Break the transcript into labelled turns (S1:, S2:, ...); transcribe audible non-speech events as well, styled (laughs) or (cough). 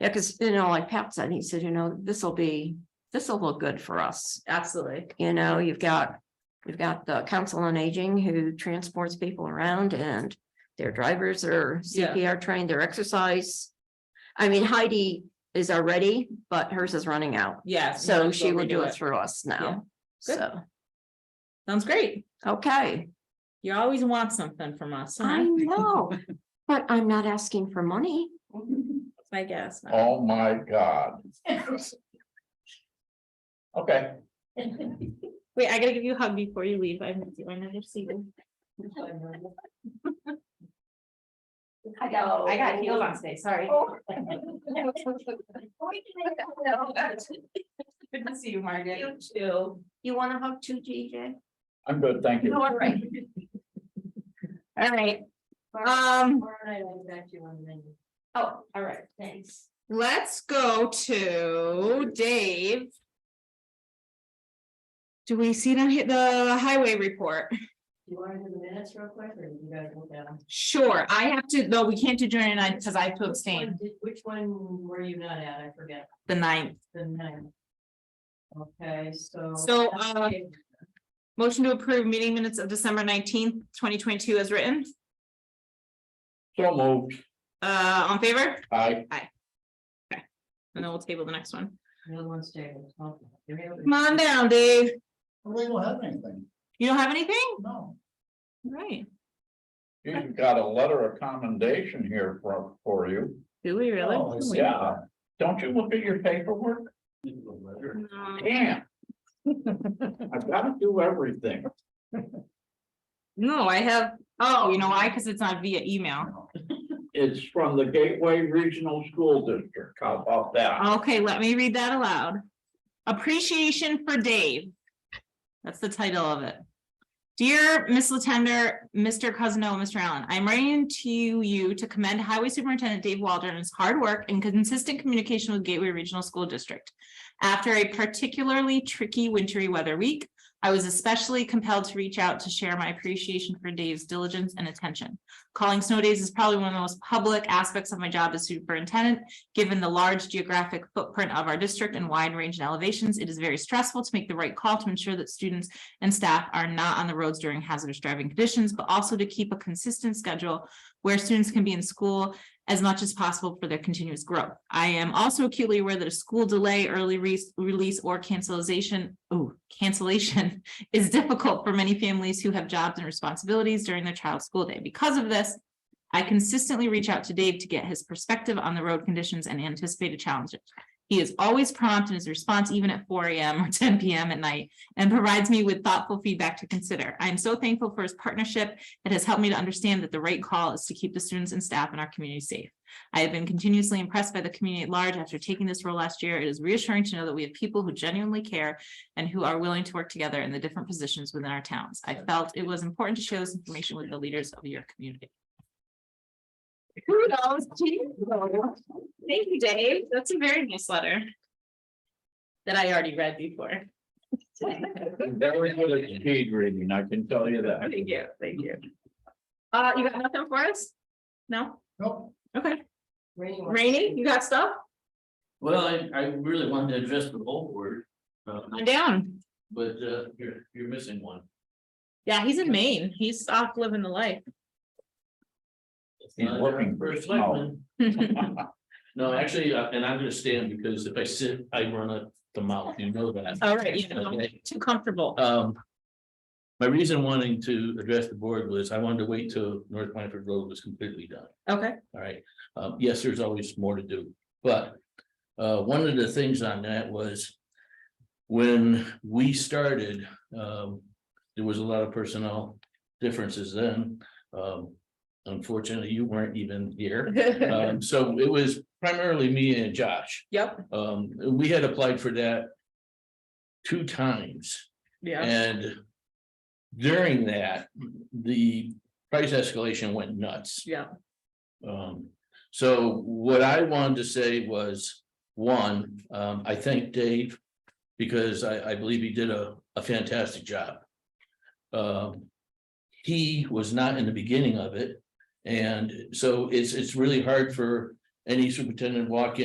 S1: Yeah, because, you know, like Pat said, he said, you know, this will be, this will look good for us.
S2: Absolutely.
S1: You know, you've got, we've got the council on aging who transports people around and their drivers are
S2: Yeah.
S1: CPR trained, their exercise. I mean Heidi is already, but hers is running out,
S2: Yeah. might
S1: so
S2: as
S1: she
S2: well
S1: will do
S2: redo
S1: it through us now.
S2: Good.
S1: So,
S2: Sounds great.
S1: okay,
S2: You always want something from us. huh?
S1: I
S2: (laughs)
S1: know, but I'm not asking for money.
S2: That's my guess.
S3: Oh, my God. Okay.
S2: Wait, I gotta give you a hug before you leave. I miss you. I know you're sleeping.
S1: I know.
S2: I got Oh. heels on today, sorry. Good to see you, Margaret. You too.
S1: You want to hug too, JJ?
S3: I'm good, thank you.
S1: All right.
S2: All right, um. Oh, all right, thanks. Let's go to Dave. Do we see the, hi- the highway report?
S1: You want to do the minutes real quick, or you guys look at them?
S2: Sure, I have to, no, we can't do during the night because I have to abstain,
S1: Which one were you not at? I forget,
S2: the ninth.
S1: the nine. Okay, so.
S2: So, uh, Motion to approve meeting minutes of December nineteenth, twenty twenty-two as written,
S3: So moved,
S2: uh, on favor?
S3: I,
S2: And then we'll table the next one.
S1: The other one's tabled. Okay.
S2: Come on down, Dave.
S4: They don't have anything,
S2: You don't have anything?
S4: no.
S2: Right.
S3: you've got a letter of commendation here for, for you.
S2: Do we
S4: Oh, I see.
S3: Yeah, don't you look at your paperwork? Damn. I've got to do everything.
S2: No, I have, oh, you know why? Because it's not via email.
S3: It's from the Gateway Regional School District. How about that?
S2: Okay, let me read that aloud. Appreciation for Dave. That's the title of it. Dear Miss Latender, Mr. Cousino, and Mr. Allen, I'm writing to you to commend Highway Superintendent Dave Waldron his hard work and consistent communication with Gateway Regional School District. After a particularly tricky wintry weather week, I was especially compelled to reach out to share my appreciation for Dave's diligence and attention. Calling snow days is probably one of the most public aspects of my job as superintendent, Given the large geographic footprint of our district and wide range in elevations, it is very stressful to make the right call to ensure that students and staff are not on the roads during hazardous driving conditions, but also to keep a consistent schedule where students can be in school as much as possible for their continuous growth. I am also acutely aware that a school delay, early re- release, or cancellation, oh, cancellation (laughs) is difficult for many families who have jobs and responsibilities during their child's school day. Because of this, I consistently reach out to Dave to get his perspective on the road conditions and anticipated challenges. He is always prompt in his response, even at four AM or (laughs) ten PM at night, and provides me with thoughtful feedback to consider. I am so thankful for his partnership. It has helped me to understand that the right call is to keep the students and staff in our community safe. I have been continuously impressed by the community at large after taking this role last year. It is reassuring to know that we have people who genuinely care and who are willing to work together in the different positions within our towns. I felt it was important to share this information with the leaders of your community. Kudos to you. Thank you, Dave. That's a very nice letter. That I already read before.
S3: Very good at speed reading, I can tell you that.
S2: Thank you, thank you. Uh, you got nothing for us? No?
S4: Nope.
S2: Okay. Rainy, you got stuff?
S5: Well, I, I really wanted to address the whole board, uh,
S2: I'm down.
S5: but, uh, you're, you're missing one.
S2: Yeah, he's in Maine. He's off living the life.
S5: It's
S3: He's
S5: not
S3: working.
S5: First selectman. No, actually, uh, and I'm gonna stand because if I sit, I run up the mouth, you know that.
S2: All right, you know,
S5: Okay.
S2: too comfortable.
S5: Um. My reason wanting to address the board was I wanted to wait till North Blanford Road was completely done.
S2: Okay,
S5: All right, um, yes, there's always more to do, but uh, one of the things on that was. When we started, um, there was a lot of personnel differences then. Um, unfortunately, you weren't even here. Um, so it was primarily me and Josh.
S2: yep,
S5: Um, we had applied for that. Two times.
S2: yeah,
S5: And during that, the price escalation went nuts.
S2: Yeah.
S5: Um, so what I wanted to say was, one, um, I thank Dave because I, I believe he did a, a fantastic job. Um, he was not in the beginning of it. And so it's, it's really hard for any superintendent to walk in.